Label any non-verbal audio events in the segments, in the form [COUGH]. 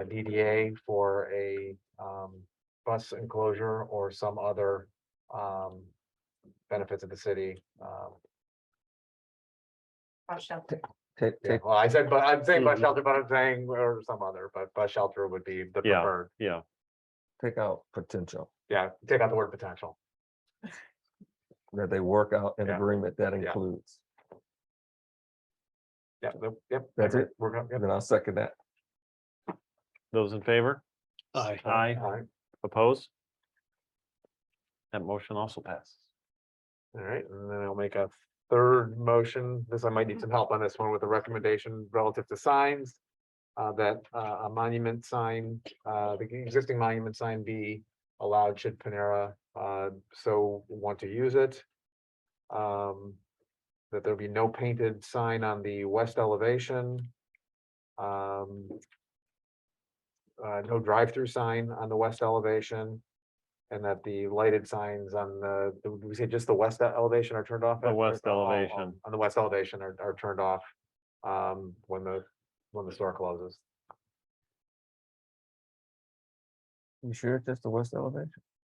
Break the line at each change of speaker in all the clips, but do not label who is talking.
a DDA for a um bus enclosure or some other um benefit to the city. Um,
bus shelter.
Take,
yeah,
take,
well, I said, but I'm saying bus
Mhm.
shelter, but I'm saying or some other, but bus shelter would be the
Yeah.
preferred.
Yeah,
take out potential,
Yeah, take out the word potential.
that they work out an
Yeah.
agreement that
Yeah.
includes.
Yeah, the- yep. I
That's
agree.
it?
We're gonna. yep,
And then I'll second that.
those in favor?
Aye.
Aye.
all right,
Opposed? That motion also passes.
All right, and then I'll make a third motion. This, I might need some help on this one with a recommendation relative to signs. Uh, that uh, a monument sign, uh, the existing monument sign be allowed should Panera uh, so want to use it. Um, that there be no painted sign on the west elevation. Um. Uh, no drive-through sign on the west elevation. And that the lighted signs on the, did we say just the west e-, elevation are turned off?
The west
Oh, oh, oh,
elevation.
On the west elevation are, are turned off, um, when the, when the store closes.
You sure it's just the west elevation?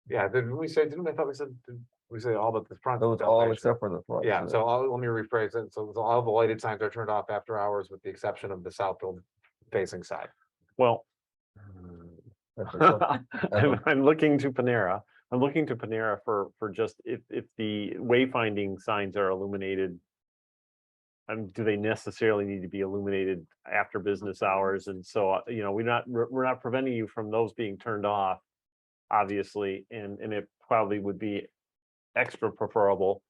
Yeah, didn't we say, didn't I thought we said, did we say all but the front?
Those all
elevation?
except for the front.
Yeah, so [LAUGHS] I'll, let me rephrase it. So so all the lighted signs are turned off after hours with the exception of the southfield facing side.
Well,
that's
[LAUGHS]
a tough-
I'm I'm looking to Panera. I'm looking to Panera for, for just if, if the wayfinding signs are illuminated. Um, do they necessarily need to be illuminated after business hours? And so, uh, you know, we're not, we're we're not preventing you from those being turned off. Obviously, and, and it probably would be extra preferable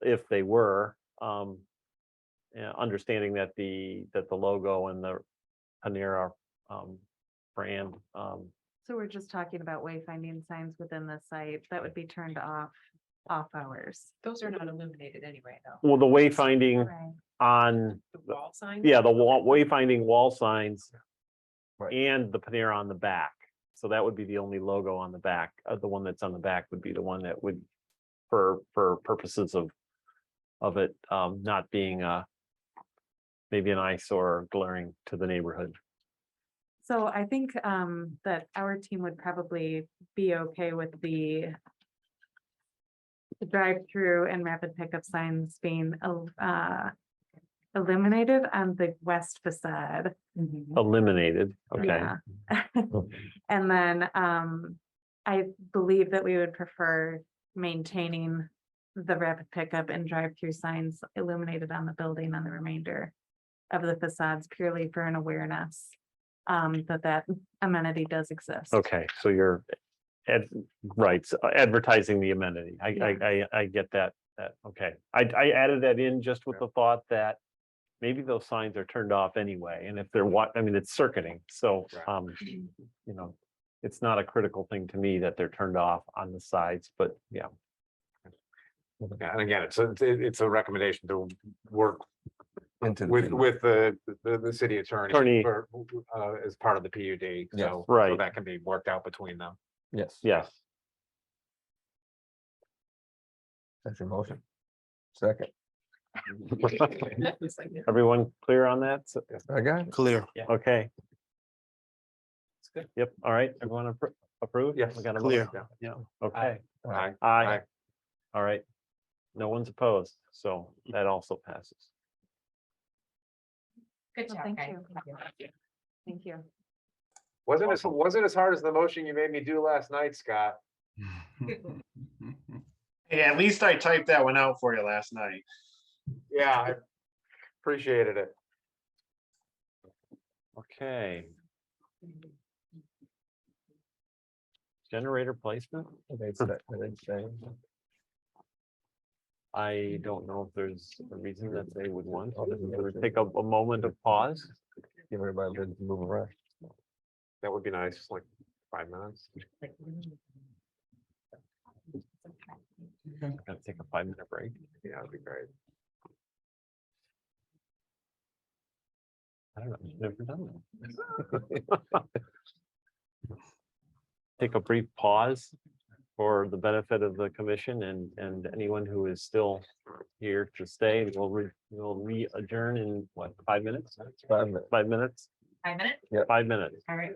if they were, um. Yeah, understanding that the, that the logo and the Panera, um, brand, um,
[LAUGHS] So we're just talking about wayfinding signs within the site that would be turned off, off hours.
Those are not illuminated anyway, though.
Well, the wayfinding
Right.
on,
The wall signs?
yeah, the wall, wayfinding wall signs.
Right.
And the Panera on the back. So that would be the only logo on the back. Uh, the one that's on the back would be the one that would, for, for purposes of, of it, um, not being, uh, maybe an eyesore glaring to the neighborhood.
So I think um that our team would probably be okay with the the drive-through and rapid pickup signs being el- uh illuminated on the west facade.
Mm-hmm.
Eliminated, okay.
Yeah. [LAUGHS] And then um, I believe that we would prefer maintaining the rapid pickup and drive-through signs illuminated on the building on the remainder of the facades purely for an awareness um, that that amenity does exist.
Okay, so you're, ad right, so uh, advertising the amenity. I, I, I, I get that, that, okay. I, I added that in just with the thought that maybe those signs are turned off anyway, and if they're what, I mean, it's circuiting, so,
Right.
um, you know, it's not a critical thing to me that they're turned off on the sides, but yeah,
Yeah, And again, it's, a- it's, it's a recommendation to work
Into. the
with,
field.
with the, the, the city attorney.
Attorney.
for, Uh, as part of the PUD,
Yes.
so. So
Right.
that can be worked out between them.
Yes.
yes.
That's your motion. Second,
It's like, yeah.
Everyone clear on that? So-
I got it.
Clear.
Okay,
It's good.
yep, all right, everyone appro- approve?
Yes.
We got a
Clear.
motion?
Yeah.
Yeah, okay.
Aye.
Aye.
Aye.
All right. No one's opposed, so that also passes.
Good
Well,
job,
thank
guys.
you. Thank you.
Wasn't as, wasn't as hard as the motion you made me do last night, Scott.
Yeah, at least I typed that one out for you last night.
Yeah, I appreciated it.
Okay. Generator placement?
They said- they say,
I don't know if there's a reason that they would want.
Oh, this is
We'll
good.
Take a, a moment of pause.
Give everybody a minute to move around.
That would be nice, like five minutes.
Gonna take a five minute break.
Yeah, that'd be great.
I don't know, I've never done that. [LAUGHS] Take a brief pause for the benefit of the commission and, and anyone who is still here to stay. We'll re, we'll re-adjourn in what, five minutes?
Five minutes.
Five minutes? Five minutes,
five minutes.
all right.